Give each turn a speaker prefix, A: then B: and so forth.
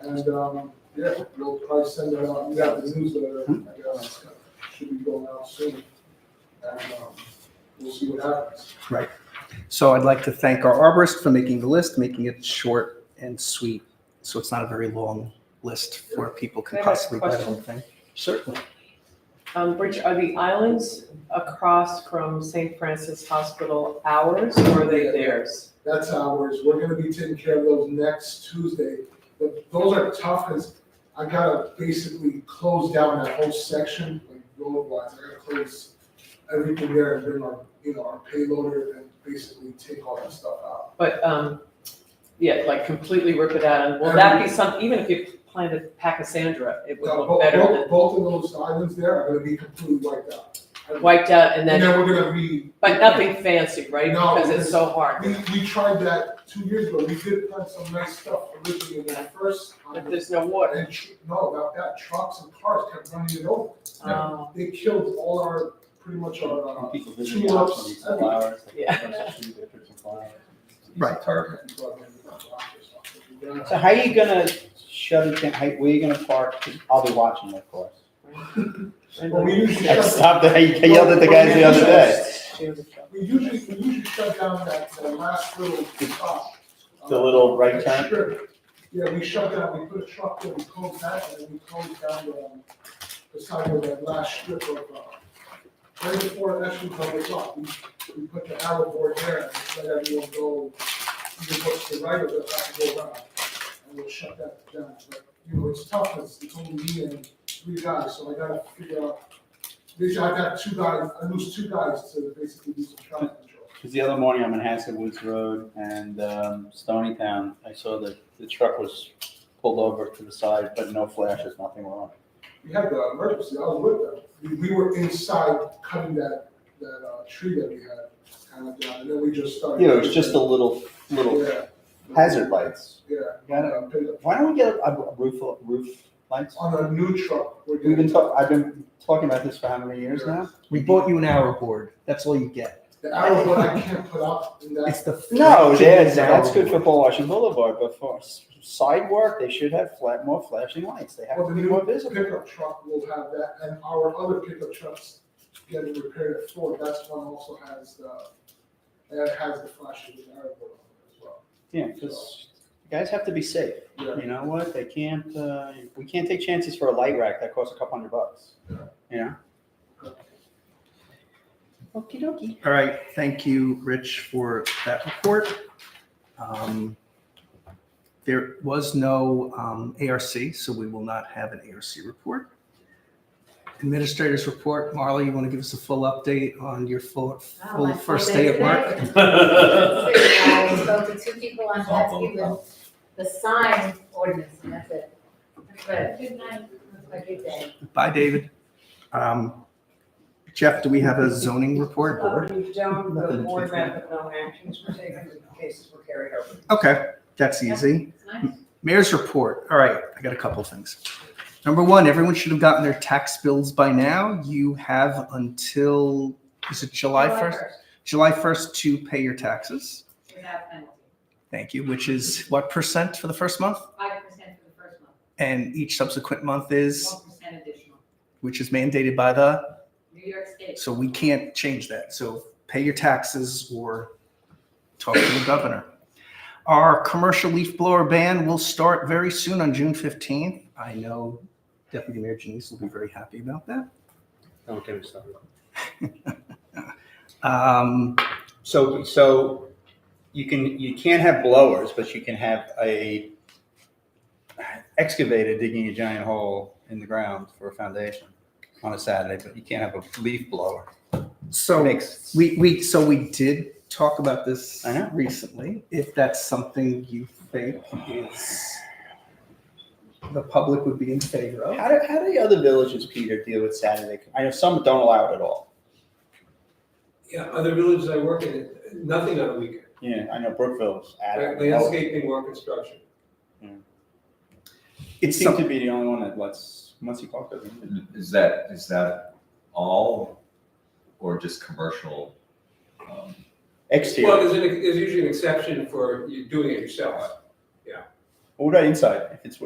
A: And, um, yeah, we'll probably send that out, we got the newsletter, I guess, should be going out soon. And, um, we'll see what happens.
B: So I'd like to thank our arborist for making the list, making it short and sweet, so it's not a very long list where people can
C: Can I ask a
B: possibly buy the
C: question?
B: whole thing. Certainly.
C: Um, Rich, are the islands across from St. Francis Hospital ours or are they theirs?
A: That's ours, we're gonna be taking care of those next Tuesday. But those are tough, cause I gotta basically close down that whole section, like roadblocks, I gotta close everything there and bring our, you know, our payloader and basically take all that stuff out.
C: But, um, yeah, like completely rip it out and will that be some, even if you planted Pachysandra, it would
A: Yeah,
C: look
A: both,
C: better
A: both,
C: than
A: both of those islands there are gonna be completely wiped out.
C: wiped out
A: And
C: and then,
A: then we're gonna be.
C: but nothing fancy, right?
A: No,
C: Because it's
A: because
C: so hard.
A: We, we tried that two years ago, we did plant some nice stuff originally in that first.
C: But there's no water.
A: And, tr- no, about that, trucks and cars kept running it over,
C: Oh.
A: they killed all our, pretty much our, uh,
D: People visiting the house when you sell flowers. they
C: Yeah.
D: take pictures of you, they put some flowers.
B: Right.
D: So how are you gonna shut it down? How, where you gonna park? I'll be watching, of course.
C: And
A: Well, we
C: then-
A: usually.
D: I
A: shut-
D: stopped, I yelled at the guys the other day.
A: We usually, we usually shut down that, that last little spot.
D: The little right
A: That
D: turn?
A: strip. Yeah, we shut down, we put a truck there, we closed that, and then we closed down the, um, the side of that last strip of, uh, right before Ashland Public Lot, we, we put the arrow board there, and let everyone go, you can go to the right of it, have to go around. And we'll shut that down, but, you know, it's tough, it's, it's only me and three guys, so I gotta figure out, basically, I got two guys, I lose two guys to basically do some traffic control.
D: Cause the other morning, I'm in Hassan Woods Road and, um, Stony Town. I saw that the truck was pulled over to the side, but no flashes, nothing wrong.
A: We had the emergency, I was with them. We, we were inside cutting that, that, uh, tree that we had kind of down, and then we just started.
D: Yeah, it was just a little, little
A: Yeah.
D: hazard lights.
A: Yeah.
D: Got it.
A: Uh, pick up.
D: Why don't we get a a roof, roof lights?
A: On a new truck, we're
D: We've
A: doing,
D: been talk, I've been talking about this for how many years now?
B: We bought you an hour board. That's all you get.
A: the arrow one I can't put up in
B: It's
A: that,
B: the.
D: No,
B: flagship
D: that's,
B: hour
D: that's good for
B: board.
D: Paul Washington Boulevard, but for s- sidewalk, they should have flat, more flashing lights. They have
A: well,
D: to
A: the
D: be
A: new
D: more visible.
A: pickup truck will have that, and our other pickup trucks getting repaired at Ford, that's one also has the, that has the flashing arrow board on it as well.
D: Yeah, because guys have to be safe.
A: Yeah.
D: You know what? They can't, uh, we can't take chances for a light rack that costs a couple hundred bucks. Okie dokie.
B: All right, thank you, Rich, for that report. Um, There was no um, ARC, so we will not have an ARC report. Administrators report, Marla, you want to give us a full update on your full,
E: Oh,
B: full
E: my full
B: first
E: day
B: day of work?
E: today. I spoke to two people on Chesky with the sign ordinance, and that's it. But good night, have a good day.
B: Bye, David. Um, Jeff, do we have a zoning report board?
F: We don't,
B: Nothing
F: the
B: to
F: board
B: take.
F: met, but no actions were taken, the cases were carried over.
B: Okay, that's easy.
E: It's nice.
B: Mayor's report. All right, I got a couple things. Number one, everyone should have gotten their tax bills by now. You have until, is it July 1st? July 1st to pay your taxes.
E: Without penalty.
B: Thank you, which is what percent for the first month?
E: Five percent for the first month,
B: And each subsequent month is,
E: one percent additional.
B: which is mandated by the
E: New York State.
B: So we can't change that. So pay your taxes or talk to the governor. Our commercial leaf blower ban will start very soon on June 15th. I know Deputy Mayor Janice will be very happy about that.
D: Don't get me started.
B: Um,
D: So, so you can, you can't have blowers, but you can have a excavator digging a giant hole in the ground for a foundation on a Saturday, but you can't have a leaf blower.
B: So
D: Makes-
B: we, we, so we did talk about this
D: I know.
B: recently. If that's something you think is, the public would be in favor of.
D: How do, how do the other villages, Peter, deal with Saturday? I know some don't allow it at all.
G: Yeah, other villages I work in, nothing on a weekend,
D: Yeah, I know Brookville's
G: Like
D: added. it.
G: landscaping or construction.
D: It
B: It's
D: seems
B: something,
D: to be the only one that lets Muncie Park open.
H: Is that, is that all or just commercial? um,
G: Well,
D: Exterior.
G: there's an, there's usually an exception for you doing it yourself.
D: What about inside? If it's